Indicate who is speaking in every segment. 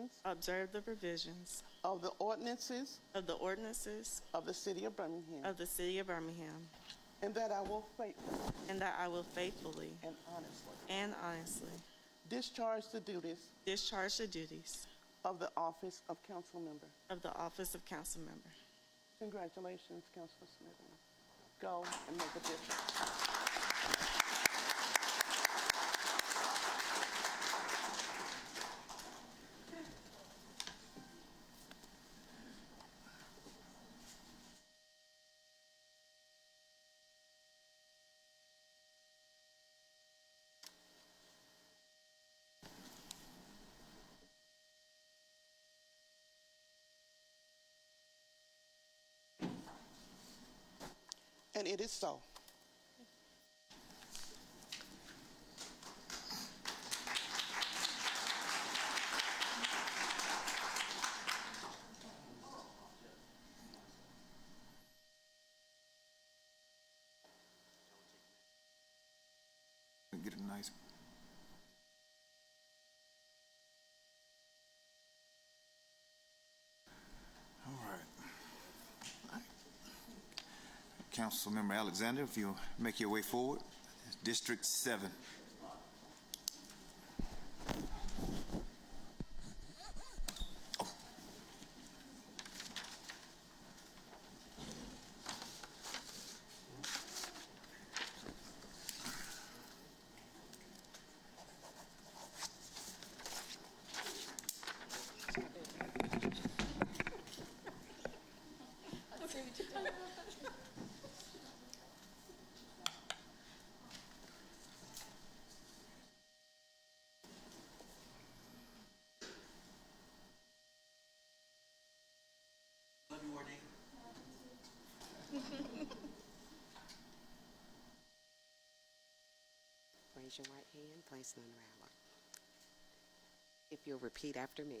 Speaker 1: provisions
Speaker 2: observe the provisions
Speaker 1: of the ordinances
Speaker 2: of the ordinances
Speaker 1: of the City of Birmingham,
Speaker 2: of the City of Birmingham,
Speaker 1: and that I will faithfully
Speaker 2: and that I will faithfully
Speaker 1: and honestly
Speaker 2: and honestly
Speaker 1: discharge the duties
Speaker 2: discharge the duties
Speaker 1: of the office of council member.
Speaker 2: of the office of council member.
Speaker 1: Congratulations, Councilor Smithman. Go and make a difference. And it is so.
Speaker 3: and get a nice all right councilmember alexander if you make your way forward district 7
Speaker 4: Love you, Ornate.
Speaker 5: Raise your right hand, place it on the Bible. If you'll repeat after me.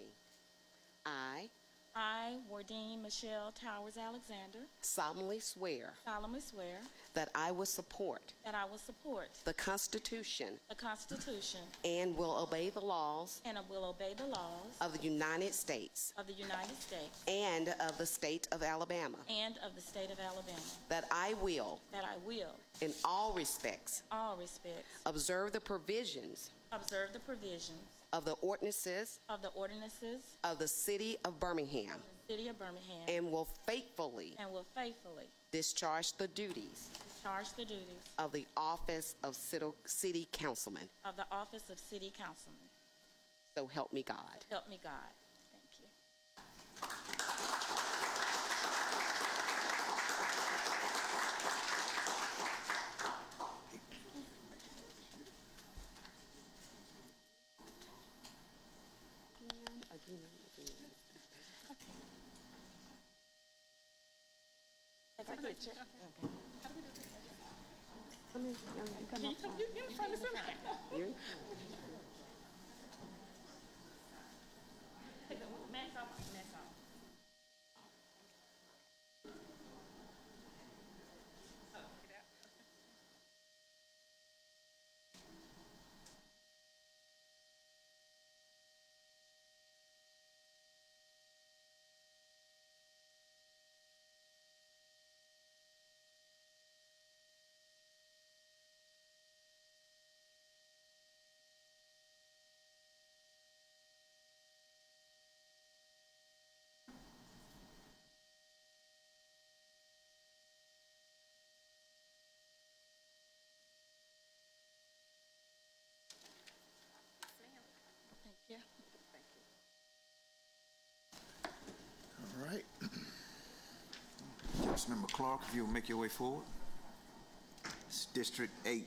Speaker 5: I
Speaker 6: I, Wardeen Michelle Towers Alexander,
Speaker 5: solemnly swear
Speaker 6: solemnly swear
Speaker 5: that I will support
Speaker 6: that I will support
Speaker 5: the Constitution
Speaker 6: the Constitution
Speaker 5: and will obey the laws
Speaker 6: and will obey the laws
Speaker 5: of the United States
Speaker 6: of the United States
Speaker 5: and of the state of Alabama,
Speaker 6: and of the state of Alabama,
Speaker 5: that I will,
Speaker 6: that I will,
Speaker 5: in all respects,
Speaker 6: in all respects,
Speaker 5: observe the provisions
Speaker 6: observe the provisions
Speaker 5: of the ordinances
Speaker 6: of the ordinances
Speaker 5: of the city of Birmingham
Speaker 6: of the city of Birmingham
Speaker 5: and will faithfully
Speaker 6: and will faithfully
Speaker 5: discharge the duties
Speaker 6: discharge the duties
Speaker 5: of the office of city- city councilman.
Speaker 6: of the office of city councilman.
Speaker 5: So help me God.
Speaker 6: Help me God. Thank you. Thank you.
Speaker 3: all right councilmember clark if you'll make your way forward it's district 8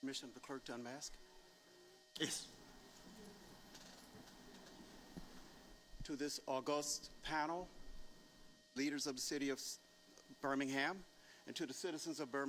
Speaker 4: Permission of the clerk to unmask?
Speaker 3: yes
Speaker 4: To this august panel, leaders of the city of Birmingham, and to the citizens of Birmingham.